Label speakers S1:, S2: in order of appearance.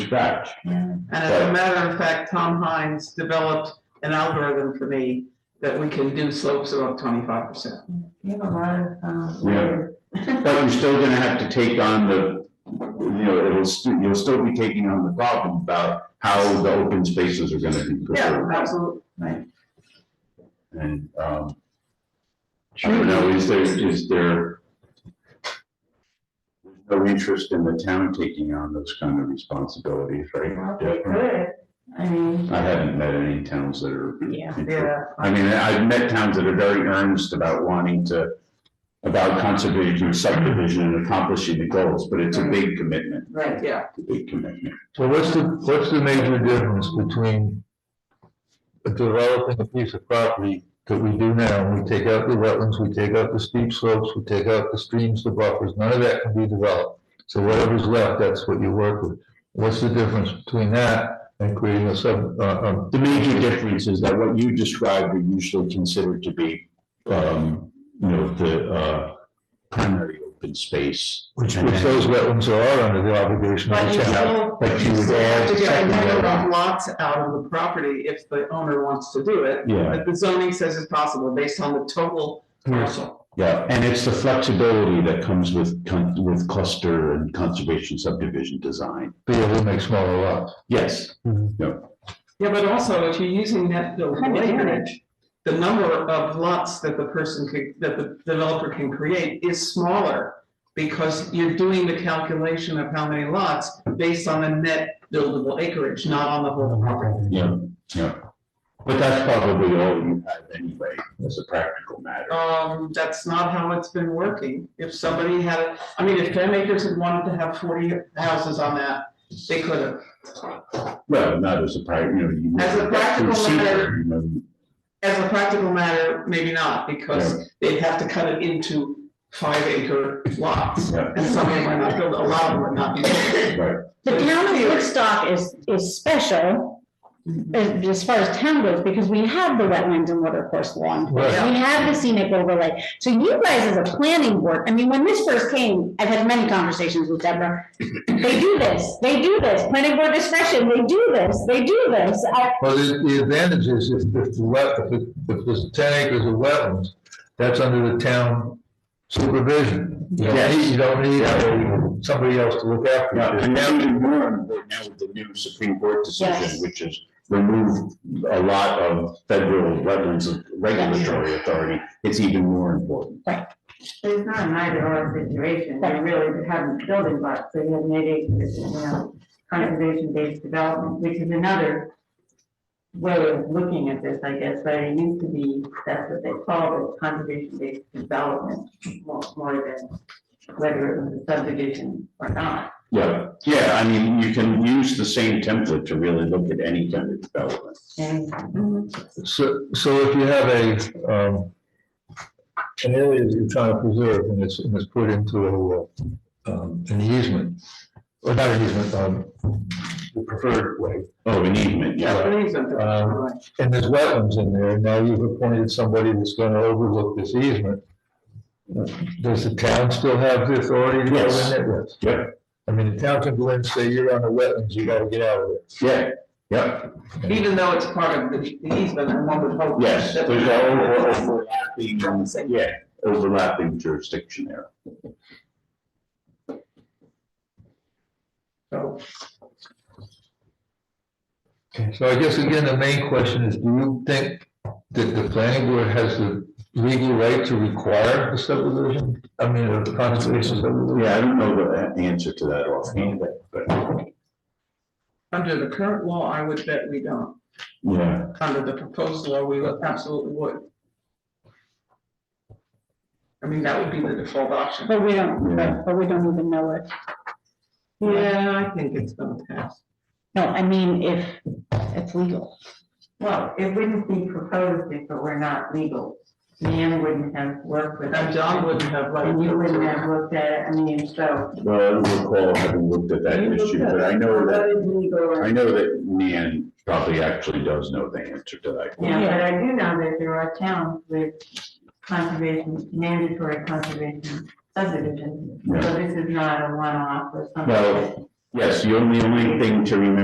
S1: scratch.
S2: As a matter of fact, Tom Hines developed an algorithm for me that we can do slopes above twenty-five percent.
S3: You have a lot
S2: uh,
S3: of, um.
S1: But you're still gonna have to take on the, you know, it'll, st- you'll still be taking on the problem about how the open spaces are gonna be preserved.
S2: absolutely.
S1: And, um, I don't know, is there, is there no interest in the town taking on those kind of responsibilities, right?
S3: Well, they
S1: Jeff?
S3: could, I mean,
S1: I haven't met any towns that are.
S3: yeah,
S2: Yeah,
S1: I mean, I've met towns that are very earnest about wanting to, about conservation or subdivision and accomplishing the goals, but it's a big commitment,
S3: right,
S2: yeah.
S1: It's a big commitment.
S4: So what's the, what's the major difference between developing a piece of property that we do now, we take out the wetlands, we take out the steep slopes, we take out the streams, the buffers, none of that can be developed. So whatever's left, that's what you work with. What's the difference between that and creating a sub, uh, uh,
S1: The major difference is that what you described are usually considered to be, um, you know, the, uh, primary open space.
S4: which, which those wetlands are under the obligation of
S2: But
S4: the
S2: you
S4: town?
S2: still
S4: But you would
S2: have
S4: add
S2: to get a
S4: second
S2: number
S4: wetland.
S2: of lots out of the property if the owner wants to do it.
S1: Yeah.
S2: But the zoning says it's possible based on the total parcel.
S1: Yeah, and it's the flexibility that comes with, con- with cluster and conservation subdivision design.
S4: Be able to make smaller lots.
S1: Yes,
S2: Yeah, but also if you're using that buildable
S3: Kind of damage.
S2: acreage, the number of lots that the person could, that the developer can create is smaller. Because you're doing the calculation of how many lots based on the net buildable acreage, not on the whole property.
S1: yeah, yeah. But that's probably all you have anyway, as a practical matter.
S2: Um, that's not how it's been working. If somebody had, I mean, if ten acres had wanted to have forty houses on that, they could have.
S1: Well, not as a pri, you know, you.
S2: As a practical
S1: you see,
S2: matter.
S1: you know,
S2: As a practical matter, maybe not, because they'd have to cut it into five acre lots.
S1: Yeah.
S2: And some of them might not build, a lot of them would not be. built.
S1: Right,
S5: The town of Woodstock is, is special as as far as town goes, because we have the wetlands and watercourse law in place.
S2: Right.
S5: We have the scenic overlay. So you guys as a planning board, I mean, when this first came, I've had many conversations with Deborah. They do this, they do this, planning board discretion, they do this, they do this. I-
S4: Well, the, the advantage is if, if the wet, if, it- if there's ten acres of wetlands, that's under the town supervision. You don't need- you don't need uh, somebody else to look
S1: yeah,
S4: after
S1: and
S4: it.
S1: now you learn, that now with the new Supreme Court decision,
S5: Yes.
S1: which is remove a lot of federal wetlands regulatory authority, it's even more important.
S3: it's not an either or situation, they really haven't built it, but they have made it, you know, conservation-based development, which is another way of looking at this, I guess, but it used to be, that's what they called it, conservation-based development, more, more than whether it was a subdivision or not.
S1: Yeah, yeah, I mean, you can use the same template to really look at any kind of development.
S3: And
S4: So, so if you have a, um, an area that you're trying to preserve and it's, and it's put into a, uh, um, an easement, or not an easement, um, the preferred way,
S1: Oh, an easement, yeah,
S2: That means something.
S4: Um, and there's wetlands in there, now you've appointed somebody that's gonna overlook this easement. Does the town still have the authority to go in
S1: Yes.
S4: there? Yes.
S1: yeah,
S4: I mean, the town can go in and say, you're on the wetlands, you gotta get out of it.
S1: yeah, yeah.
S2: Even though it's part of the the easement, and one would hope.
S1: Yes,
S2: that-
S1: there's a over- overlapping, yeah, overlapping jurisdiction there.
S2: So,
S4: So I guess again, the main question is, do you think that the planning board has the legal right to require the subdivision? I mean, of the conservation subdivision?
S1: Yeah, I don't know the a- answer to that offhand, but,
S2: Under the current law, I would bet we don't.
S1: yeah,
S2: Under the proposed law, we would- absolutely would. I mean, that would be the default option.
S5: But we don't, but but we don't even know it.
S2: Yeah, I think it's gonna pass.
S5: No, I mean, if it's legal.
S3: Well, it wouldn't be proposed if it were not legal. Man wouldn't have worked with.
S2: And John wouldn't have like.
S3: And you wouldn't have looked at it, I mean, so.
S1: well, I don't recall having looked at that issue, but I know that,
S3: That is legal.
S1: I know that Nan probably actually does know the answer to that.
S3: Yeah, but I do know that there are towns with conservation, mandatory conservation subdivisions. So
S1: Yeah.
S3: this is not a one-off or something.
S1: No. Yes, the only, only thing to remember